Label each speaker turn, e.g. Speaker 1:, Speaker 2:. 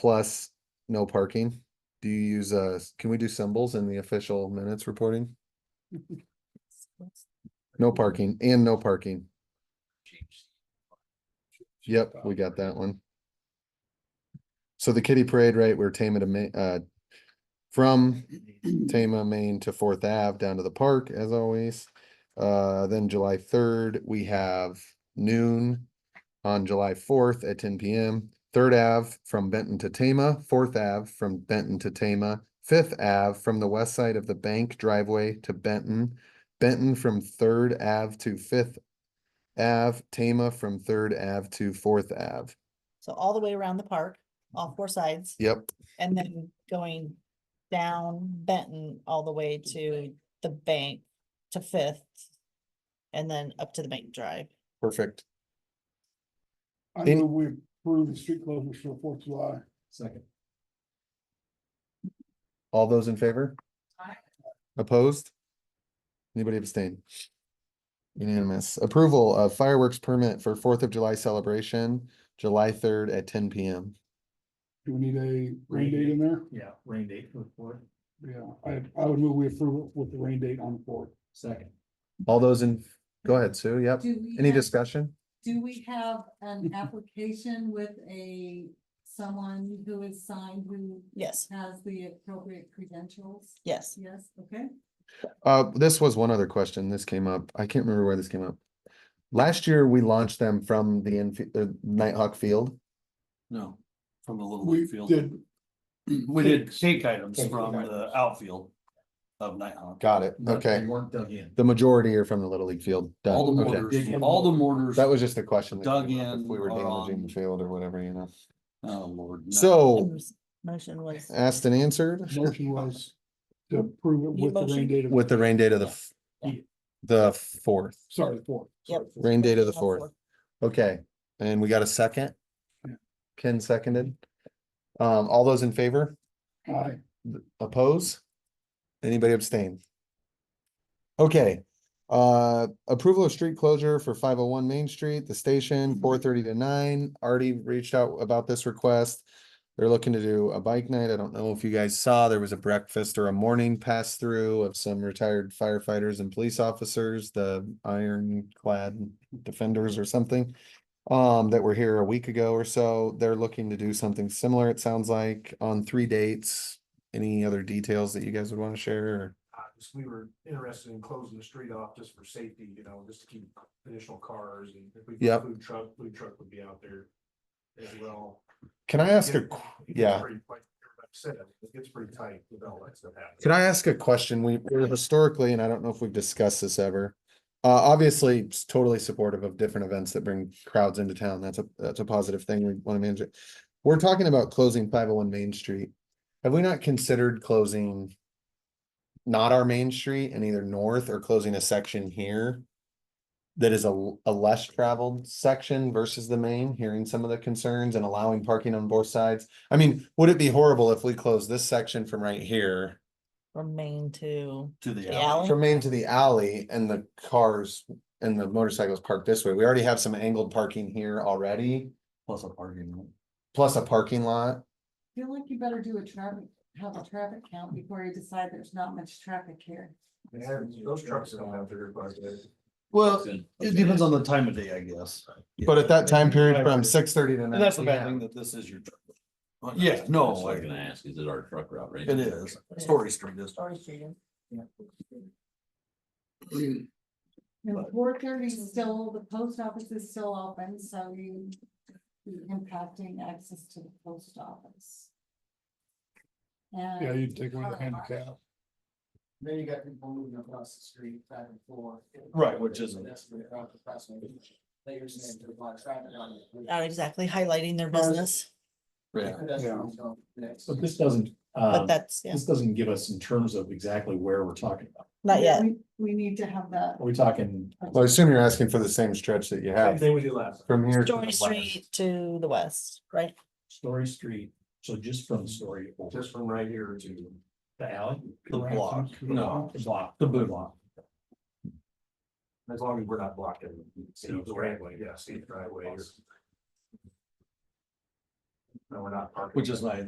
Speaker 1: plus no parking? Do you use, uh, can we do symbols in the official minutes reporting? No parking and no parking. Yep, we got that one. So the kitty parade, right, we're Tama to Ma- uh, from Tama, Maine to Fourth Ave down to the park as always. Uh, then July third, we have noon on July fourth at ten PM. Third Ave from Benton to Tama, Fourth Ave from Benton to Tama, Fifth Ave from the west side of the bank driveway to Benton, Benton from Third Ave to Fifth Ave, Tama from Third Ave to Fourth Ave.
Speaker 2: So all the way around the park, all four sides,
Speaker 1: Yep,
Speaker 2: and then going down Benton all the way to the bank, to Fifth. And then up to the bank drive.
Speaker 1: perfect.
Speaker 3: I
Speaker 1: Any-
Speaker 3: move we approve the street closures for the Fourth of July.
Speaker 4: Second.
Speaker 1: All those in favor?
Speaker 2: Aye.
Speaker 1: Opposed? Anybody abstain? Unanimous. Approval of fireworks permit for Fourth of July celebration, July third at ten PM.
Speaker 3: Do we need a
Speaker 4: Rain
Speaker 3: rain date in there?
Speaker 4: Yeah, rain date for the fourth,
Speaker 3: Yeah, I, I would move we approve it with the rain date on the fourth.
Speaker 4: second.
Speaker 1: All those in, go ahead, Sue. Yep.
Speaker 5: Do we
Speaker 1: Any
Speaker 5: have-
Speaker 1: discussion?
Speaker 5: Do we have an application with a, someone who is signed who
Speaker 2: Yes,
Speaker 5: has the appropriate credentials?
Speaker 2: yes.
Speaker 5: Yes, okay.
Speaker 1: Uh, this was one other question. This came up. I can't remember where this came up. Last year, we launched them from the infi- uh, Nighthawk Field.
Speaker 6: No, from the little
Speaker 3: We
Speaker 6: league field.
Speaker 3: did,
Speaker 6: We did cake items
Speaker 4: Cake
Speaker 6: from
Speaker 4: items.
Speaker 6: the outfield of Nighthawk.
Speaker 1: Got it.
Speaker 4: But they
Speaker 1: Okay.
Speaker 4: Weren't dug in.
Speaker 1: The majority are from the Little League Field.
Speaker 6: All
Speaker 1: Done.
Speaker 6: the
Speaker 1: Okay.
Speaker 6: mortars, all the mortars.
Speaker 1: That was just the question. that
Speaker 6: Dug
Speaker 1: came up, If
Speaker 6: in
Speaker 1: we were
Speaker 6: are
Speaker 1: damaging
Speaker 6: on-
Speaker 1: the field or whatever, you know.
Speaker 6: Oh, Lord. no.
Speaker 1: So
Speaker 2: Motion was,
Speaker 1: asked and answered
Speaker 3: motion was to approve it
Speaker 2: You
Speaker 3: with the rain
Speaker 2: motion?
Speaker 3: date of.
Speaker 1: with the rain date of the, f-
Speaker 2: Yeah.
Speaker 1: the fourth,
Speaker 3: Sorry, the fourth.
Speaker 2: Yep.
Speaker 1: rain date of the
Speaker 2: All
Speaker 1: fourth.
Speaker 2: four.
Speaker 1: Okay, and we got a second?
Speaker 3: Yeah.
Speaker 1: Ken seconded. Um, all those in favor?
Speaker 3: Aye.
Speaker 1: Oppose? Anybody abstain? Okay, uh, approval of street closure for five oh one Main Street, the station, four thirty to nine, already reached out about this request. They're looking to do a bike night. I don't know if you guys saw, there was a breakfast or a morning pass through of some retired firefighters and police officers, the ironclad defenders or something. Um, that were here a week ago or so. They're looking to do something similar, it sounds like, on three dates. Any other details that you guys would want to share? or-
Speaker 7: Uh, just we were interested in closing the street off just for safety, you know, just to keep additional cars and if we.
Speaker 1: Yep.
Speaker 7: Food truck, food truck would be out there as well.
Speaker 1: Can I ask
Speaker 7: Yeah,
Speaker 1: a,
Speaker 7: it
Speaker 1: qu-
Speaker 7: gets
Speaker 1: yeah.
Speaker 7: pretty- Like everybody said, it gets pretty tight with all that stuff happening.
Speaker 1: can I ask a question? We we're historically, and I don't know if we've discussed this ever. Uh, obviously, s- totally supportive of different events that bring crowds into town. That's a, that's a positive thing. We want to manage it. We're talking about closing five oh one Main Street. Have we not considered closing not our main street and either north or closing a section here that is a, l- a less traveled section versus the main, hearing some of the concerns and allowing parking on both sides? I mean, would it be horrible if we close this section from right here
Speaker 2: From Maine to
Speaker 6: To the
Speaker 2: the
Speaker 6: alley.
Speaker 2: alley.
Speaker 1: from Main to the alley and the cars and the motorcycles parked this way. We already have some angled parking here already,
Speaker 6: Plus a parking lot.
Speaker 1: plus a parking lot.
Speaker 5: I Feel like you better do a traffic, have a traffic count before you decide there's not much traffic here.
Speaker 7: They have- Those trucks don't have their, but.
Speaker 6: Well, it depends on the time of day, I guess.
Speaker 1: But at that time period
Speaker 6: Yeah.
Speaker 1: from six thirty to nine.
Speaker 6: And that's the
Speaker 1: we
Speaker 6: bad
Speaker 1: have-
Speaker 6: thing that this is your. Yeah, no. I was gonna ask, is it our truck route, right? It is. Story Street is.
Speaker 2: Sorry, Susan.
Speaker 5: And
Speaker 6: But-
Speaker 5: four thirty is still, the post office is still open, so you be impacting access to the post office.
Speaker 3: Yeah,
Speaker 5: And
Speaker 3: you'd take away the handicap.
Speaker 7: Then you got people moving across the street back and forth.
Speaker 6: Right, which isn't-
Speaker 7: That's where the crossing. They are saying there's a lot of traffic on it.
Speaker 2: Not Uh, exactly highlighting their business,
Speaker 6: Yeah.
Speaker 7: Pedestrians don't mix.
Speaker 4: But this doesn't,
Speaker 2: but
Speaker 6: um,
Speaker 4: uh,
Speaker 2: that's, yeah,
Speaker 4: this doesn't give us in terms of exactly where we're talking about.
Speaker 2: not yet.
Speaker 5: we- we need to have that.
Speaker 4: Are we talking?
Speaker 1: Well, I assume you're asking for the same stretch that you
Speaker 7: Same
Speaker 1: have
Speaker 7: thing we did last.
Speaker 1: from here. to the
Speaker 2: Story
Speaker 1: west.
Speaker 2: Street to the west, right?
Speaker 4: Story Street, so just from Story over
Speaker 7: Just from right here to.
Speaker 4: the alley?
Speaker 6: The block, no,
Speaker 4: The block.
Speaker 6: the boot block.
Speaker 7: As long as we're not blocking Steve's driveway, yeah, Steve's driveway. or-
Speaker 8: No, we're not parking.
Speaker 7: which is nice.